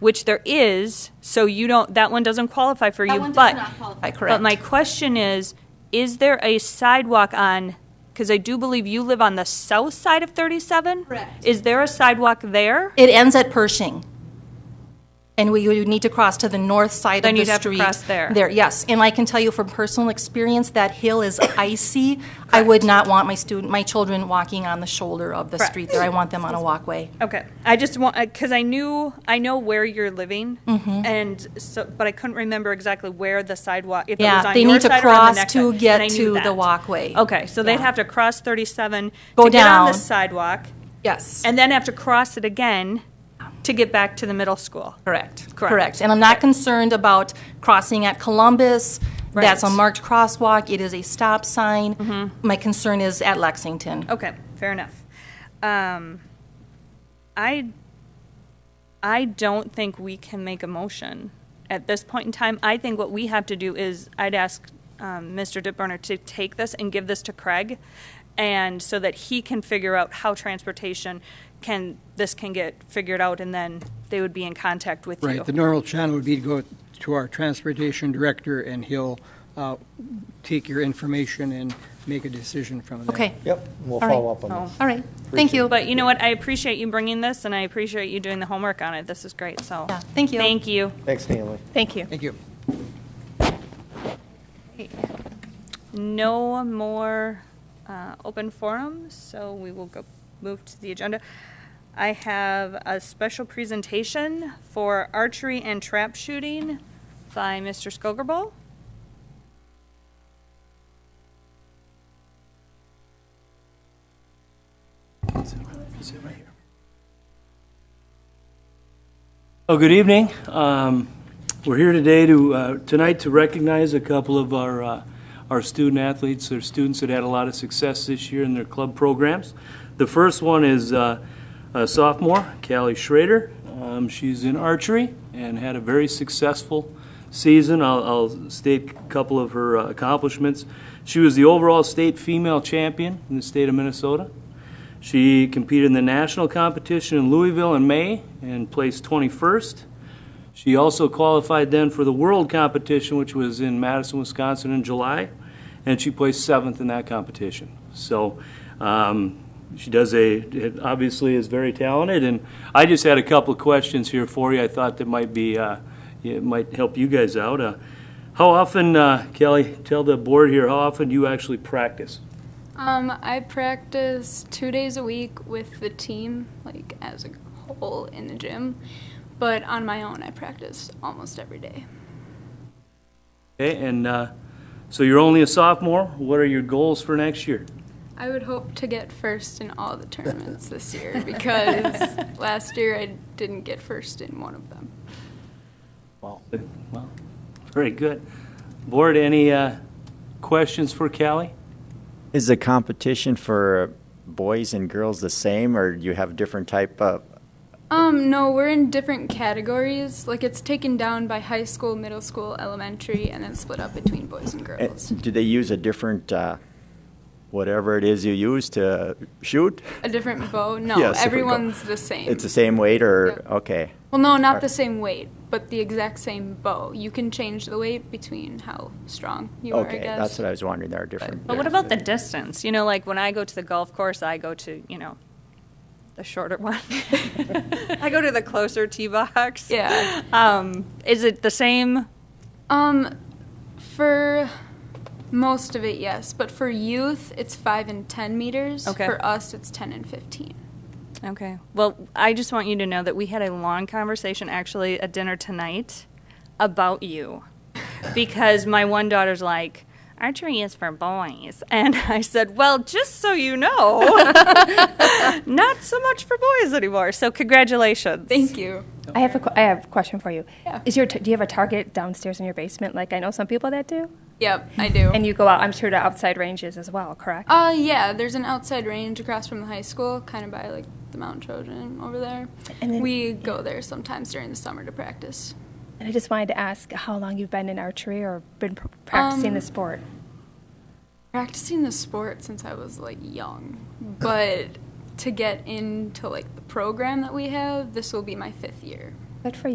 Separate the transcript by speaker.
Speaker 1: which there is, so you don't, that one doesn't qualify for you,
Speaker 2: That
Speaker 1: but.
Speaker 2: one does not qualify.
Speaker 1: But my question is, is there a sidewalk on, because I do believe you live on the south side of 37?
Speaker 2: Correct.
Speaker 1: Is there a sidewalk there?
Speaker 2: It ends at Pershing. And we would need to cross to the north side
Speaker 1: Then
Speaker 2: of the
Speaker 1: you'd have to
Speaker 2: street.
Speaker 1: cross there.
Speaker 2: There, yes. And I can tell you from personal experience, that hill is icy. I would not want my student, my children walking on the shoulder of the
Speaker 1: Correct.
Speaker 2: street there. I want them on a walkway.
Speaker 1: Okay, I just want, because I knew, I know where you're living,
Speaker 2: Mm-hmm.
Speaker 1: and so, but I couldn't remember exactly where the sidewalk, if it
Speaker 2: Yeah,
Speaker 1: was on
Speaker 2: they
Speaker 1: your
Speaker 2: need to
Speaker 1: side or on the
Speaker 2: cross
Speaker 1: next
Speaker 2: to
Speaker 1: side,
Speaker 2: get
Speaker 1: and I knew
Speaker 2: to the
Speaker 1: that.
Speaker 2: walkway.
Speaker 1: Okay, so they'd
Speaker 2: Yeah.
Speaker 1: have to cross 37
Speaker 2: Go
Speaker 1: to get on the
Speaker 2: down.
Speaker 1: sidewalk,
Speaker 2: Yes.
Speaker 1: and then have to cross it again to get back to the middle school.
Speaker 2: Correct.
Speaker 1: Correct.
Speaker 2: And I'm not concerned about crossing at Columbus. That's a
Speaker 1: Right.
Speaker 2: marked crosswalk. It is a stop sign. My concern is at Lexington.
Speaker 1: Mm-hmm. Okay, fair enough. Um, I, I don't think we can make a motion at this point in time. I think what we have to do is, I'd ask um, Mr. Dipburner to take this and give this to Craig, and so that he can figure out how transportation can, this can get figured out, and then they would be in contact with you.
Speaker 3: Right, the normal channel would be to go to our transportation director, and he'll uh, take your information and make a decision from there.
Speaker 2: Okay.
Speaker 4: Yep,
Speaker 2: All
Speaker 4: we'll
Speaker 2: right. Oh.
Speaker 4: follow up on this.
Speaker 2: All right. Thank you.
Speaker 1: But you know what? I appreciate you bringing this, and I appreciate you doing the homework on it. This is great, so.
Speaker 2: Yeah, thank you.
Speaker 1: Thank you.
Speaker 4: Thanks, Stanley.
Speaker 5: Thank you.
Speaker 3: Thank you.
Speaker 1: No more uh, open forums, so we will go, move to the agenda. I have a special presentation for archery and trap shooting by Mr. Skogerbo.
Speaker 6: Oh, good evening. Um, We're here today to, uh, tonight to recognize a couple of our, uh, our student athletes, They're students that had a lot of success this year in their club programs. The first one is uh, a sophomore, Callie Schrader. Um, She's in archery and had a very successful season. I'll- I'll state a couple of her uh, accomplishments. She was the overall state female champion in the state of Minnesota. She competed in the national competition in Louisville in May and placed 21st. She also qualified then for the world competition, which was in Madison, Wisconsin in July, and she placed seventh in that competition. So um, she does a, it obviously is very talented, and I just had a couple of questions here for you. I thought that might be, uh, it might help you guys out. Uh, How often, uh, Kelly, tell the board here, how often do you actually practice?
Speaker 7: Um, I practice two days a week with the team, like as a whole in the gym, but on my own, I practice almost every day.
Speaker 6: Okay, and uh, so you're only a sophomore. What are your goals for next year?
Speaker 7: I would hope to get first in all the tournaments this year because last year I didn't get first in one of them.
Speaker 6: Well, very good. Board, any uh, questions for Callie?
Speaker 8: Is the competition for boys and girls the same, or do you have different type of?
Speaker 7: Um, no, we're in different categories. Like it's taken down by high school, middle school, elementary, and then split up between boys and
Speaker 8: eh,
Speaker 7: girls.
Speaker 8: Do they use a different, uh, whatever it is you use to shoot?
Speaker 7: A different bow? No,
Speaker 8: Yes, there we go.
Speaker 7: everyone's the same.
Speaker 8: It's the same weight, or
Speaker 7: Yeah.
Speaker 8: okay,
Speaker 7: Well, no, not
Speaker 8: Or-
Speaker 7: the same weight, but the exact same bow. You can change the weight between how strong you are, I
Speaker 8: okay.
Speaker 7: guess.
Speaker 8: That's what I was wondering. There are different.
Speaker 1: But what about the distance? You know, like when I go to the golf course, I go to, you know, the shorter one. I go to the closer tee box.
Speaker 7: Yeah.
Speaker 1: Um, is it the same?
Speaker 7: Um, for most of it, yes, but for youth, it's five and ten meters.
Speaker 1: Okay.
Speaker 7: For us, it's ten and fifteen.
Speaker 1: Okay. Well, I just want you to know that we had a long conversation actually at dinner tonight about you. Because my one daughter's like, archery is for boys. And I said, well, just so you know, not so much for boys anymore. So, congratulations.
Speaker 7: Thank you.
Speaker 5: I have a, que- I have a question for you.
Speaker 7: Yeah.
Speaker 5: Is your, t- do you have a target downstairs in your basement? Like I know some people that do.
Speaker 7: Yep, I do.
Speaker 5: And you go out, I'm sure to outside ranges as well, correct?
Speaker 7: uh, yeah, there's an outside range across from the high school, kind of by like the Mount Trojan over there.
Speaker 5: And then-
Speaker 7: we go there sometimes during the summer to practice.
Speaker 5: and I just wanted to ask how long you've been in archery or been pr- practicing
Speaker 7: Um,
Speaker 5: the sport.
Speaker 7: practicing the sport since I was like young, but to get into like the program that we have, this will be my fifth year.
Speaker 5: Good for you.